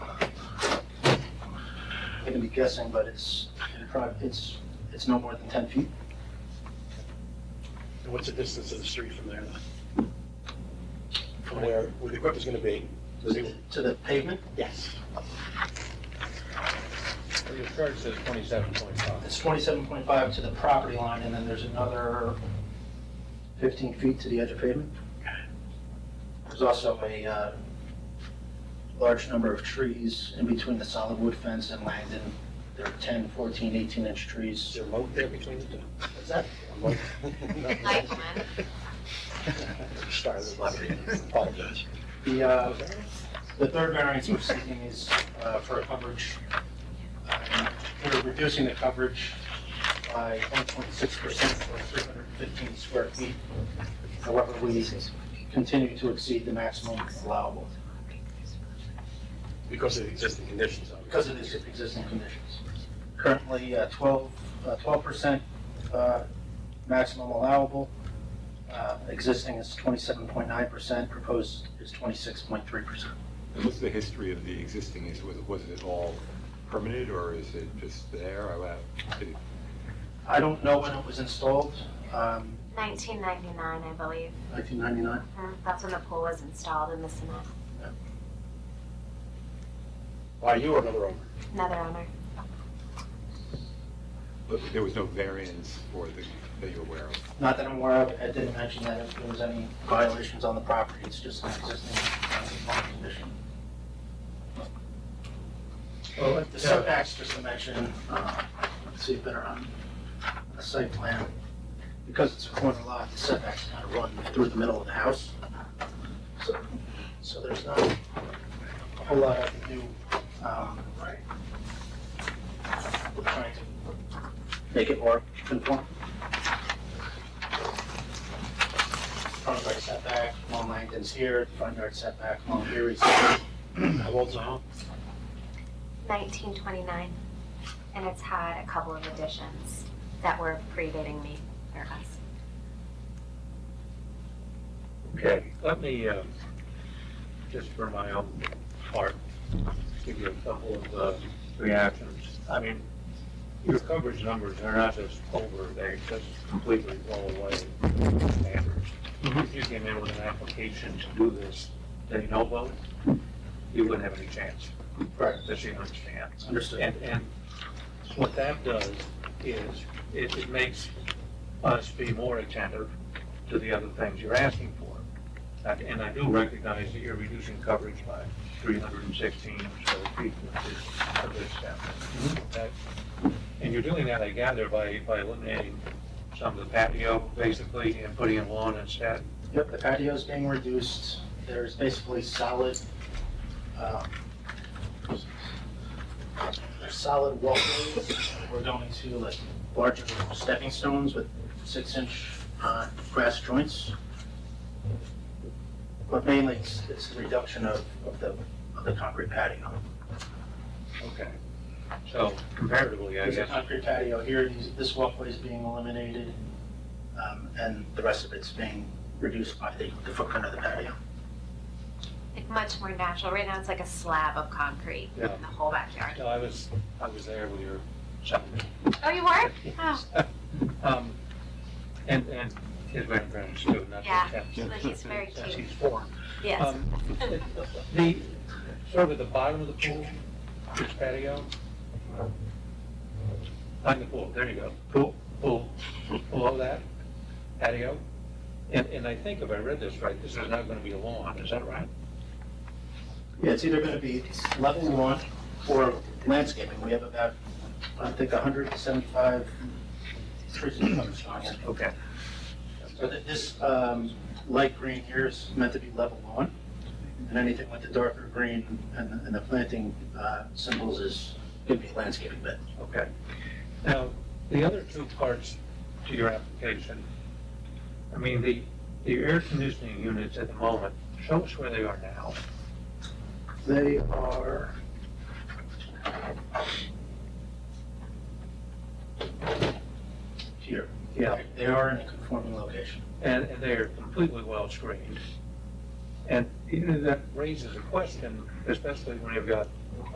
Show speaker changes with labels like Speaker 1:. Speaker 1: gonna be guessing, but it's, it'd prob- it's, it's no more than 10 feet.
Speaker 2: And what's the distance of the street from there? From where, where the equipment's gonna be? Does it-
Speaker 1: To the pavement,
Speaker 2: Yes.
Speaker 3: Your chart says twenty-seven point five.
Speaker 1: it's 27.5 to the property line, and then there's another 15 feet to the edge of pavement. There's also a uh, large number of trees in between the solid wood fence and Langdon. There are 10, 14, 18-inch
Speaker 2: Is
Speaker 1: trees.
Speaker 2: there a moat there between the two?
Speaker 1: Is that
Speaker 2: A moat?
Speaker 4: I can.
Speaker 2: Sorry, I apologize.
Speaker 1: The, uh, the third variance we're seeking is uh, for a coverage. um, We're reducing the coverage by 1.6% for 315 square feet. However, we continue to exceed the maximum allowable
Speaker 2: Because of the existing conditions, obviously.
Speaker 1: because of these existing conditions. Currently, uh, 12, uh, 12% uh, maximum allowable. Uh, Existing is 27.9%, proposed is 26.3%.
Speaker 5: And What's the history of the existing, is, was, was it all permitted, or is it just there? I- I-
Speaker 1: I don't know when it was installed, um,
Speaker 4: 1999, I believe.
Speaker 1: 1999.
Speaker 4: Mhm. That's when the pool was installed in the cement.
Speaker 2: Why, you or another owner?
Speaker 4: Another owner.
Speaker 5: But there was no variance for the, that you're aware of?
Speaker 1: Not that I'm aware of, I didn't mention that if there was any violations on the property, it's just an existing non-conforming condition. Well, the setbacks, just to mention, uh, let's see if they're on the site plan. Because it's a corner lot, the setbacks kind of run through the middle of the house. So, so there's not a whole lot I can do. um, We're trying to make it more conform. front yard setback, Long Langdon's here, front yard setback, Long Erie's here.
Speaker 2: How old's the home?
Speaker 4: 1929. And it's had a couple of additions that were predating me or us.
Speaker 3: Okay, let me, um, just for my own part, give you a couple of uh, reactions. I mean, your coverage numbers are not just over, they just completely blow away standards. If you came in with an application to do this, they no vote, you wouldn't have any chance.
Speaker 1: Correct.
Speaker 3: That you understand.
Speaker 1: Understood.
Speaker 3: And, and what that does is, it, it makes us be more attentive to the other things you're asking for. And and I do recognize that you're reducing coverage by three hundred and sixteen square feet which is a good step. Okay? And you're doing that, I gather, by, by eliminating some of the patio, basically, and putting in lawn instead.
Speaker 1: Yep, the patio's being reduced, there's basically solid, um, there's solid walkways. We're going to like larger stepping stones with six-inch uh, grass joints. But mainly, it's it's the reduction of of the, of the concrete patio.
Speaker 3: Okay. So comparatively, I
Speaker 1: There's a
Speaker 3: guess,
Speaker 1: concrete patio here, these- this walkway is being eliminated, um, and the rest of it's being reduced by the the footprint of the patio.
Speaker 4: Like much more natural. Right now, it's like a slab of concrete in
Speaker 3: Yeah.
Speaker 4: the whole backyard.
Speaker 3: no, I was, I was there with your son.
Speaker 4: Oh, you were? Oh,
Speaker 3: Um, and, and his grandparents too, not
Speaker 4: Yeah,
Speaker 3: just him.
Speaker 4: but he's very
Speaker 3: Since
Speaker 4: cute.
Speaker 3: he's four.
Speaker 4: Yes.
Speaker 3: Um, The, sort of at the bottom of the pool, this patio. Behind the pool, there you go. Pool, pool, below that, patio. And, and I think if I read this right, this is not gonna be a lawn, is that right?
Speaker 1: Yeah, it's either going to be level lawn or landscaping. We have about, I think, 175 trees and shrubs on it.
Speaker 3: Okay.
Speaker 1: So th- this um, light green here is meant to be level lawn, and anything with the darker green and the- and the planting uh, symbols is going to be landscaping bed.
Speaker 3: Okay. Now, the other two parts to your application, I mean, the, the air conditioning units at the moment, show us where they are now.
Speaker 1: They are. Here. They are in a conforming location.
Speaker 3: And, and they are completely well screened. And you know, that raises a question, especially when you've got